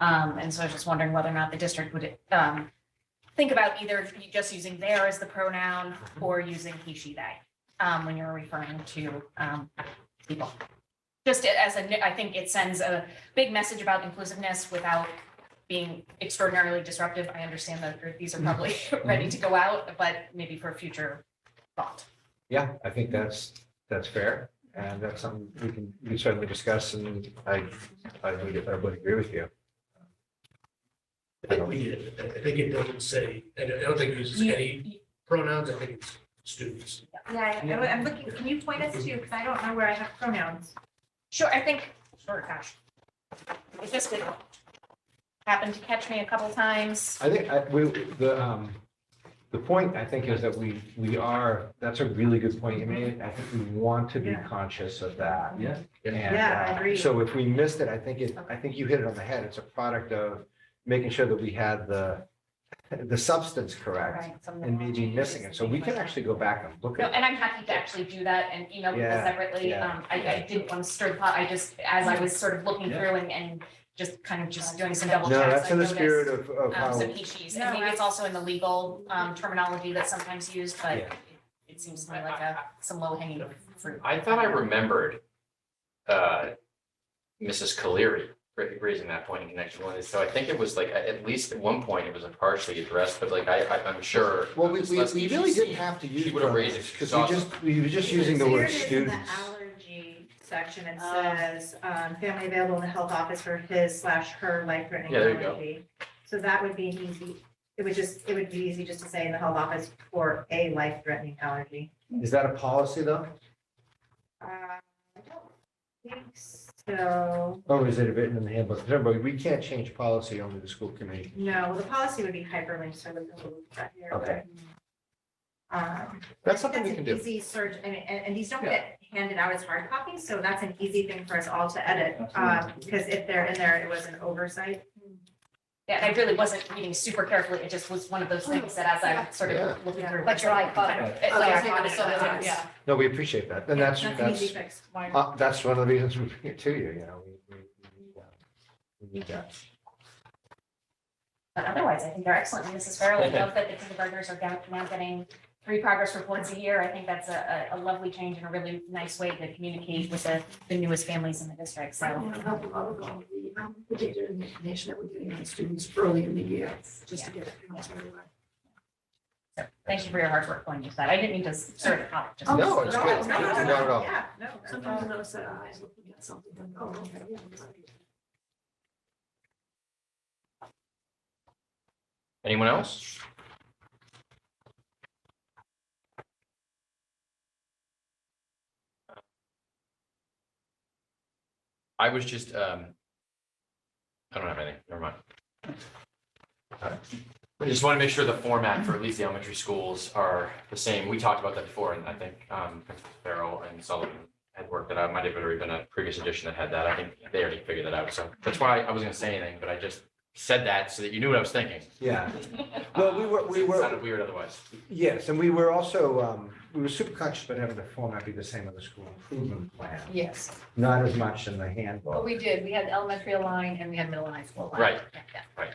Um, and so I was just wondering whether or not the district would, um, think about either just using there as the pronoun or using he, she, they, um, when you're referring to, um, people. Just as a, I think it sends a big message about inclusiveness without being extraordinarily disruptive. I understand that these are probably ready to go out, but maybe for future thought. Yeah, I think that's, that's fair. And that's something we can, we can certainly discuss and I, I would, I would agree with you. I think we did. I think it doesn't say, I don't I don't think it uses any pronouns, I think it's students. Yeah, I- I- I'm looking, can you point us to, because I don't know where I have pronouns. Sure, I think, sure, gosh. It just did happened to catch me a couple times. I think, I, we, the, um, the point I think is that we, we are, that's a really good point you made. I think we want to be Yeah. conscious of that. Yeah. And, Yeah, I uh, agree. So if we missed it, I think it, I think you hit it on the head. It's a product of making sure that we had the, the substance correct Right, some of and them- maybe missing it. So we can actually go back and look No, at. and I'm happy to actually do that and email people Yeah, separately. yeah. Um, I, I didn't want to stir the pot. I just, as I was sort of looking Yeah. through and, and just kind of just doing some double No, checks. that's I in the noticed, spirit of, of Um, how, some he, she's, No, and maybe it's also in the legal, um, terminology that's sometimes used, but Yeah. it seems to me like a, some low hanging fruit. I thought I remembered uh, Mrs. Caleri ra- raising that point in connection with it. So I think it was like, at at least at one point, it was partially addressed, but like I, I- I'm sure. well, we, we, Leslie, we she's really didn't seen- have to use. would have raised it. Because we just, we were just using the So here word it is in students. Allergy section, it Oh. says, um, family available in the health office for his slash her life threatening Yeah, there you go. allergy. So that would be an easy, it would just, it would be easy just to say in the health office for a life threatening allergy. Is that a policy though? Uh, I don't think so. Or is it written in the handbook? Remember, we can't change policy, only the school committee. No, the policy would be hyperlinked, so we can move that here. but, Okay. Um, That's something we that's can an do. Easy search, and, and, and these don't get handed out as hard copies, so that's an easy thing for us all to edit. Um, because if they're in there, it was an oversight. Yeah, and I really wasn't reading super carefully. It just was one of those things that as I sort Yeah. of looking through. But you're right, but- Kind of- it's like I caught it, so it's like, Yeah. No, we appreciate that. And that's, That's an easy that's, fix. uh, that's one of the reasons we bring it to you, you know. we- we- we need that. We need that. But otherwise, I think they're excellent. And Mrs. Farrell, I love that the kindergartners are gout- now getting three progress reports a year. I think that's a, a a lovely change and a really nice way to communicate with the, the newest families in the district. So Yeah, help a lot of all the, um, the data and information that we're getting on students early in the year, just to get it. out to everyone. thank you for your hard work going into that. I didn't mean to sort of pop. Oh, just- No, it's Oh, no, good. no, no, Not at all. Yeah, no. Sometimes another set of eyes looking at something, and, oh, okay. yeah, I'm sorry. Anyone else? I was just, um, I don't have anything, never mind. Uh, I just want to make sure the format for at least the elementary schools are the same. We talked about that before, and I think um, Principal Farrell and Sullivan had worked that out. Might have already been a previous edition that had that. I think they already figured that out. So that's why I wasn't gonna say anything, but I just said that so that you knew what I was thinking. Yeah. Well, we were- we were- Sounded weird otherwise. Yes, and we were also, um, we were super conscious about having the format be the same on the school improvement plan. Yes, Not as much in the but handbook. we did. We had elementary aligned and we had middle and high school aligned. Right. Yeah, yeah.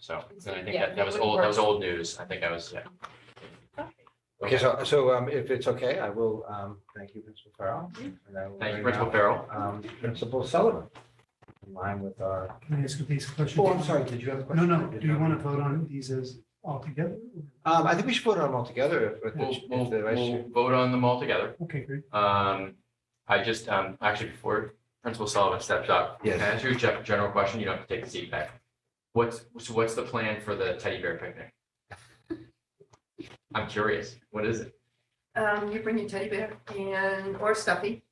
So and I think Yeah, that, that was it old, that was works. old news. I think I was, yeah. Okay, so, so, um, if it's okay, I will, um, thank you, Principal Farrell. Thank you, Principal Farrell. Um, Principal Sullivan. In line with our, Can I ask a basic question? oh, I'm sorry, did you have a No, question? no, do you want to vote on these as altogether? Um, I think we should vote on them all together. if- if the- We'll, if we'll, the vice chair- we'll vote on them all together. Okay, great. Um, I just, um, actually before Principal Sullivan steps up. Yes. Can I ask you a ge- general question? You don't have to take the seat back. What's, so what's the plan for the teddy bear picnic? I'm curious. What is it? Um, you bring your teddy bear and, or stuffy.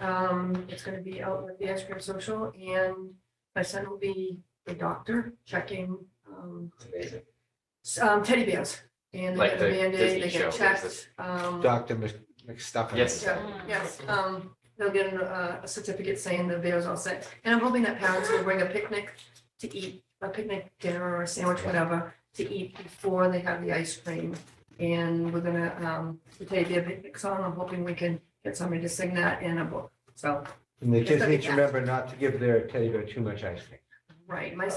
Um, it's gonna be out with the ice cream social and my son will be the doctor checking, um, It's amazing. s- um, teddy bears. And they Like get a the Band-Aid, Disney they show, get is checked, this- um. Dr. Mc- McStuffins. Yes. Mm. Yeah, yes, um, they'll get an, uh, a certificate saying the video's all set. And I'm hoping that parents will bring a picnic to eat, a picnic dinner or a sandwich, whatever, to eat before they have the ice cream. And we're gonna, um, the teddy bear picnic's on, I'm hoping we can get somebody to sing that in a book. So, And the kids Yes, need to yeah. remember not to give their teddy bear too much ice cream. right, my